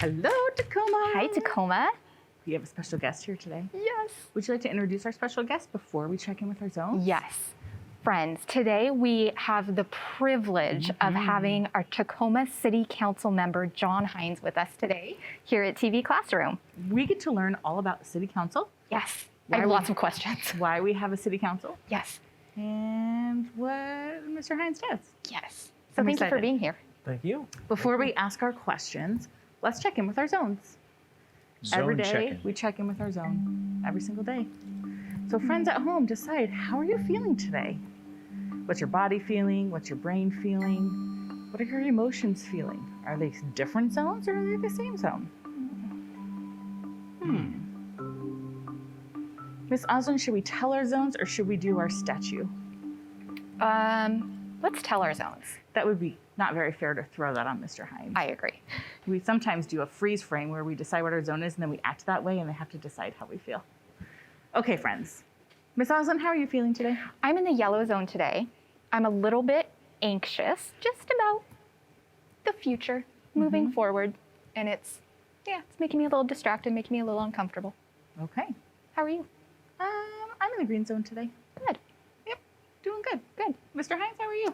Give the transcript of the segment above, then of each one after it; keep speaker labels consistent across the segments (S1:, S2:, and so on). S1: Hello, Tacoma.
S2: Hi, Tacoma.
S1: We have a special guest here today.
S2: Yes.
S1: Would you like to introduce our special guest before we check in with our zone?
S2: Yes. Friends, today we have the privilege of having our Tacoma City Council member, John Hines, with us today here at TV Classroom.
S1: We get to learn all about the city council,
S2: Yes.
S1: Why
S2: I have
S1: would-
S2: lots of questions.
S1: why we have a city council,
S2: Yes.
S1: and what Mr. Hines does.
S2: Yes. So
S1: I'm
S2: thank you
S1: excited.
S2: for being here.
S3: Thank you.
S1: Before we ask our questions, let's check in with our zones. every day we check in with our zone every single day so friends at home decide how are you feeling today what's your body feeling what's your brain feeling what are your emotions feeling are they different zones or are they the same zone hmm miss osland should we tell our zones or should we do our statue
S2: Um, let's tell our zones.
S1: that would be not very fair to throw that on mr hines
S2: I agree.
S1: we sometimes do a freeze frame where we decide what our zone is and then we act that way and they have to decide how we feel. Okay, friends. Miss Oslin, how are you feeling today?
S2: I'm in the yellow zone today. I'm a little bit anxious just about the future, moving forward. And it's, yeah, it's making me a little distracted, making me a little uncomfortable.
S1: Okay.
S2: How are you?
S1: Um, I'm in the green zone today.
S2: Good.
S1: Yep. Doing good.
S2: Good.
S1: Mr. Hines, how are you?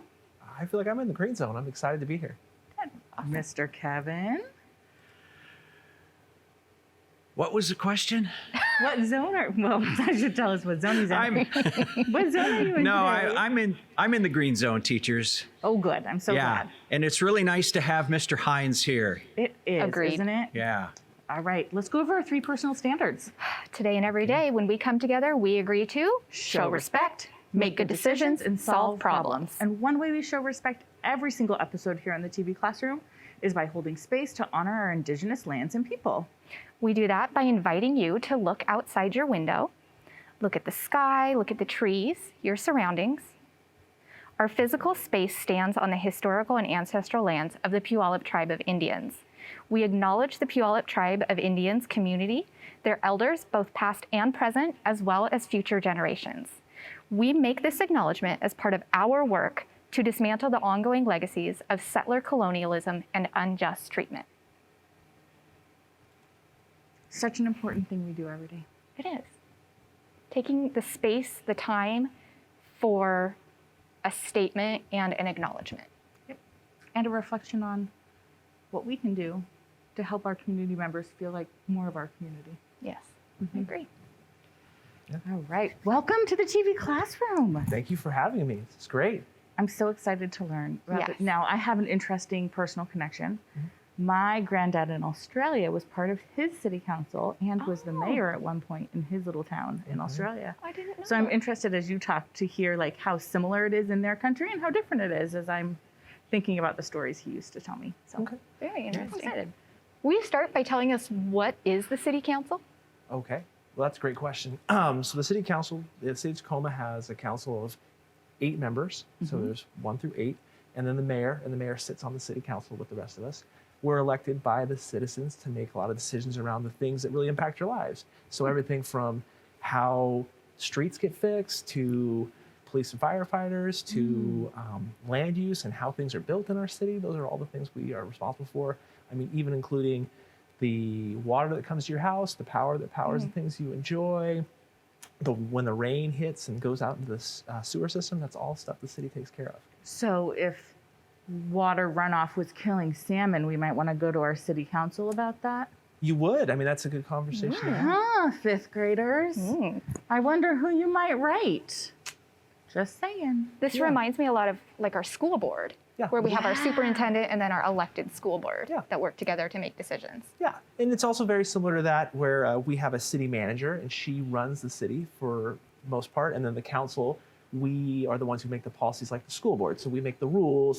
S3: I feel like I'm in the green zone. I'm excited to be here.
S1: Good. Mr. Kevin.
S4: What was the question?
S1: What zone are well, that should tell us what zone he's in.
S4: I'm
S1: what zone are you in
S4: no,
S1: today?
S4: I, I'm in I'm in the green zone, teachers.
S1: Oh good. I'm so
S4: yeah,
S1: glad.
S4: and it's really nice to have Mr. Hines here.
S1: It is,
S2: Agreed.
S1: isn't it?
S4: Yeah,
S1: All right. Let's go over our three personal standards.
S2: Today and every day, when we come together, we agree to
S1: show respect,
S2: make good decisions, and solve problems.
S1: And one way we show respect every single episode here in the TV classroom is by holding space to honor our indigenous lands and people.
S2: We do that by inviting you to look outside your window, look at the sky, look at the trees, your surroundings. Our physical space stands on the historical and ancestral lands of the Puyallup Tribe of Indians. We acknowledge the Puyallup Tribe of Indians community, their elders, both past and present, as well as future generations. We make this acknowledgement as part of our work to dismantle the ongoing legacies of settler colonialism and unjust treatment.
S1: Such an important thing we do every day.
S2: It is. Taking the space, the time for a statement and an acknowledgement.
S1: And a reflection on what we can do to help our community members feel like more of our community.
S2: Yes, I agree.
S1: All right. Welcome to the TV classroom.
S3: Thank you for having me. It's great.
S1: I'm so excited to learn about
S2: Yes.
S1: it. Now, I have an interesting personal connection. My granddad in Australia was part of his city council and was the
S2: Oh.
S1: mayor at one point in his little town in Australia.
S2: I didn't know.
S1: So I'm interested as you talk to hear like how similar it is in their country and how different it is as I'm thinking about the stories he used to tell me. So
S3: Okay.
S2: very
S1: I'm
S2: interesting.
S1: excited.
S2: Will you start by telling us what is the city council?
S3: Okay. Well, that's a great question. Um, so the city council, the city of Tacoma has a council of eight members. So there's one through eight, and then the mayor, and the mayor sits on the city council with the rest of us. We're elected by the citizens to make a lot of decisions around the things that really impact your lives. So everything from how streets get fixed to police and firefighters to um, land use and how things are built in our city. Those are all the things we are responsible for. I mean, even including the water that comes to your house, the power that powers the things you enjoy, the when the rain hits and goes out into the s- uh, sewer system. That's all stuff the city takes care of.
S1: So if water runoff was killing salmon, we might want to go to our city council about that.
S3: You would. I mean, that's a good conversation. to have.
S1: Huh, fifth graders.
S2: Mm.
S1: I wonder who you might write. Just saying.
S2: This reminds me a lot of like our school board,
S3: Yeah.
S2: where we have our superintendent and then our elected school board
S3: Yeah.
S2: that work together to make decisions.
S3: Yeah, and it's also very similar to that where uh, we have a city manager and she runs the city for the most part, and then the council. We are the ones who make the policies, like the school board. So we make the rules